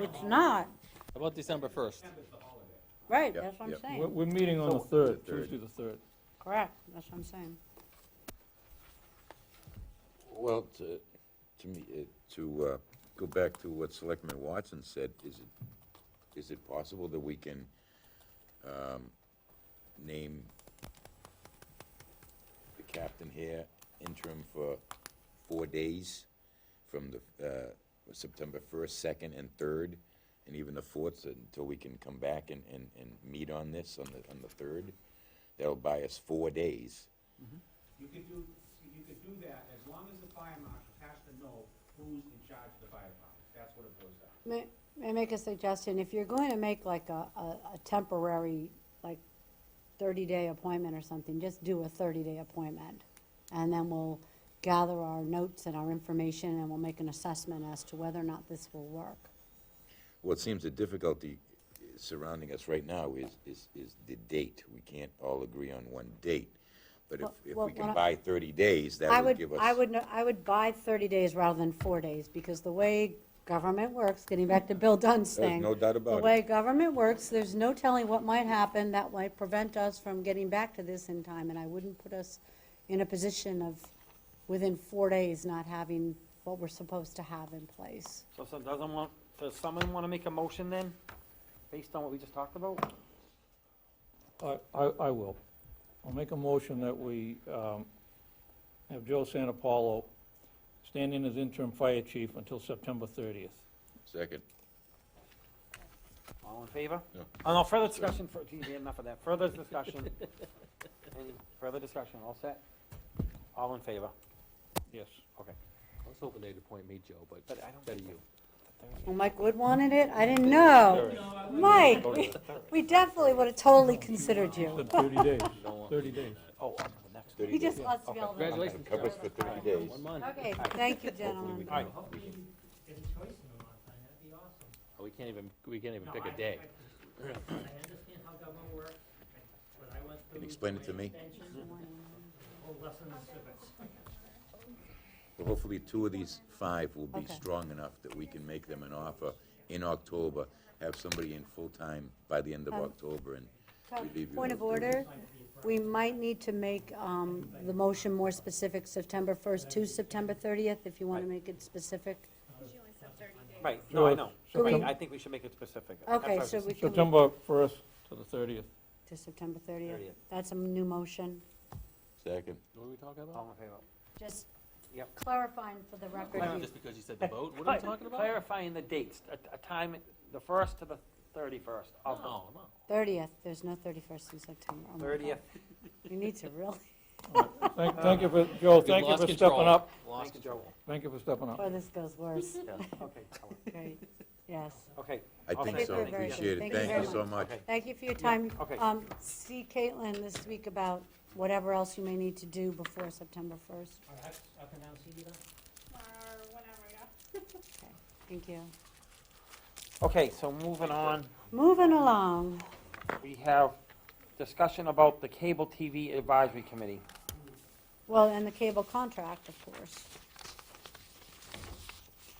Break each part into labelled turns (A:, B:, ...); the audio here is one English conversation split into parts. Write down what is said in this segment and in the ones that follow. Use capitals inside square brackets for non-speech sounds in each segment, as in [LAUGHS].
A: it's not,
B: How about December first?
A: right,
C: Yep,
A: that's what I'm
C: yep.
D: We're,
A: saying,
D: we're meeting on the third,
C: The third.
D: Tuesday the third.
A: correct, that's what I'm saying.
C: Well, to, to me, it- to uh, go back to what Selectman Watson said, is it, is it possible that we can um, name the captain here interim for four days from the, uh, September first, second, and third, and even the fourth, until we can come back and, and, and meet on this, on the, on the third? That'll buy us four days.
E: You could do, you could do that as long as the fire marshal has to know who's in charge of the fire department. That's what it boils down to.
A: May, may I make a suggestion? If you're going to make like a, a, a temporary, like thirty-day appointment or something, just do a thirty-day appointment. And then we'll gather our notes and our information and we'll make an assessment as to whether or not this will work.
C: Well, it seems the difficulty surrounding us right now is, is, is the date. We can't all agree on one date. But if,
A: Well-
C: if
A: well,
C: we can
A: what
C: buy thirty days,
A: I
C: that would
A: would,
C: give us.
A: I would, no- I would buy thirty days rather than four days, because the way government works, getting back to Bill Dunn's
C: There's
A: thing.
C: no doubt about
A: The
C: it.
A: way government works, there's no telling what might happen that might prevent us from getting back to this in time, and I wouldn't put us in a position of, within four days, not having what we're supposed to have in place.
F: So some, doesn't want, does someone wanna make a motion then, based on what we just talked about?
D: I, I, I will. I'll make a motion that we, um, have Joe Santapalo stand in as interim fire chief until September thirtieth.
C: Second.
F: All in favor?
C: No.
F: Oh, no, further discussion, for, geez, enough of that,
B: [LAUGHS]
F: further discussion. Any further discussion, all set? All in favor?
D: Yes.
F: Okay.
B: I was hoping they'd appoint me, Joe, but
F: But I don't
B: better you.
A: Well, Mike Wood wanted it, I didn't know. Mike, we, we definitely would have totally considered you.
D: Said thirty days,
B: Don't want-
D: thirty days.
F: Oh, on to the next.
A: He
C: 30 days.
A: just wants to be able to.
B: Congratulations,
C: Covers for thirty days.
B: One month.
A: Okay, thank you, gentlemen.
B: All right.
E: Hopefully, you get a choice in the month, and that'd be awesome.
B: We can't even, we can't even
E: No,
B: pick a
E: I-
B: day.
E: I I understand how government works, but I went through.
C: Can you explain it to me?
E: Whole lesson in civics.
C: Well, Hopefully, two of these five will be
A: Okay.
C: strong enough that we can make them an offer in October, have somebody in full-time by the end of
A: Um,
C: October, and
A: Tom,
C: We'd be
A: Point of
C: able to do
A: order, we might need to make um, the motion more specific, September 1st to September 30th, if you want to make it specific.
F: Right, no, I
D: Sure.
F: know,
D: So
F: Right,
D: we-
F: I think we should make it specific. That's
A: Okay,
F: what I
A: so
F: was-
A: we can,
D: September first to the thirtieth.
A: to September 30th.
F: 30th.
A: That's a new motion.
C: second.
B: What are we talking about?
F: All in favor?
A: Just
F: Yep.
A: clarifying for the
B: Clarify,
A: record.
B: Just because you said the vote, what are we talking about?
F: Clarifying the dates, a, a time, the first to the thirty-first
B: No,
F: of the
B: no.
A: 30th, there's no 31st in September. Oh my God.
F: thirtieth.
A: You need to really, [LAUGHS]
D: Thank, thank you for, Joe,
B: We've
D: thank you
B: lost
D: for
B: control.
D: stepping up.
B: Lost
F: Thank you, Joe.
B: control.
D: Thank you for stepping up.
A: or this goes
F: [LAUGHS]
A: worse.
F: Yeah, okay, Helen.
A: Great, yes.
F: okay.
C: I
F: I'll
C: think
F: second
C: so.
F: it. Thank you.
C: Appreciate it.
A: Thank you
C: Thank
A: very
C: you so
A: much.
C: much.
F: Okay.
A: Thank you for your time.
F: okay.
A: Um, See Caitlin this week about whatever else you may need to do before September 1st.
E: All right, up and down, see you then.
G: or whatever, yeah.
A: Thank you.
F: Okay, so moving on,
A: Moving along,
F: we have discussion about the Cable TV Advisory Committee.
A: well, and the cable contract, of course.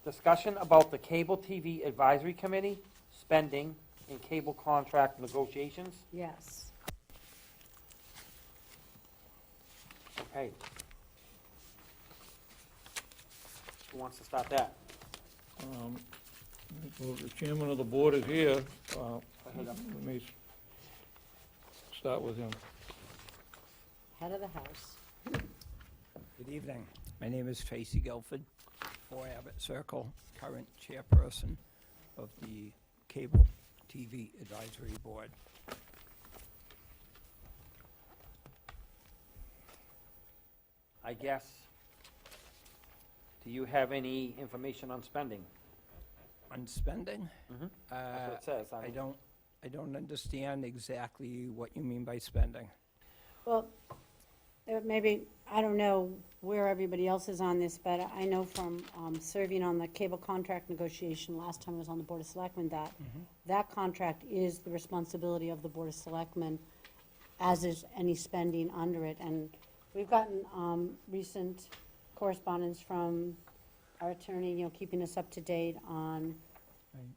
F: Discussion about the Cable TV Advisory Committee, spending, and cable contract negotiations.
A: Yes.
F: Okay. Who wants to start that?
D: Um, well, The chairman of the board is here. Uh, Let me s- start with him.
A: Head of the house.
H: Good evening. My name is Tracy Guilford, 4 Abbott Circle, current chairperson of the Cable TV Advisory Board.
F: I guess, do you have any information on spending?
H: On spending?
F: Mhm. That's what
H: uh,
F: it says.
H: I
F: on-
H: don't, I don't understand exactly what you mean by spending.
A: Well, there may be I don't know where everybody else is on this, but I know from um, serving on the cable contract negotiation last time I was on the Board of Selectmen that that contract is the responsibility of the Board of Selectmen, as is any spending under it. And we've gotten um, recent correspondence from our attorney, you know, keeping us up to date on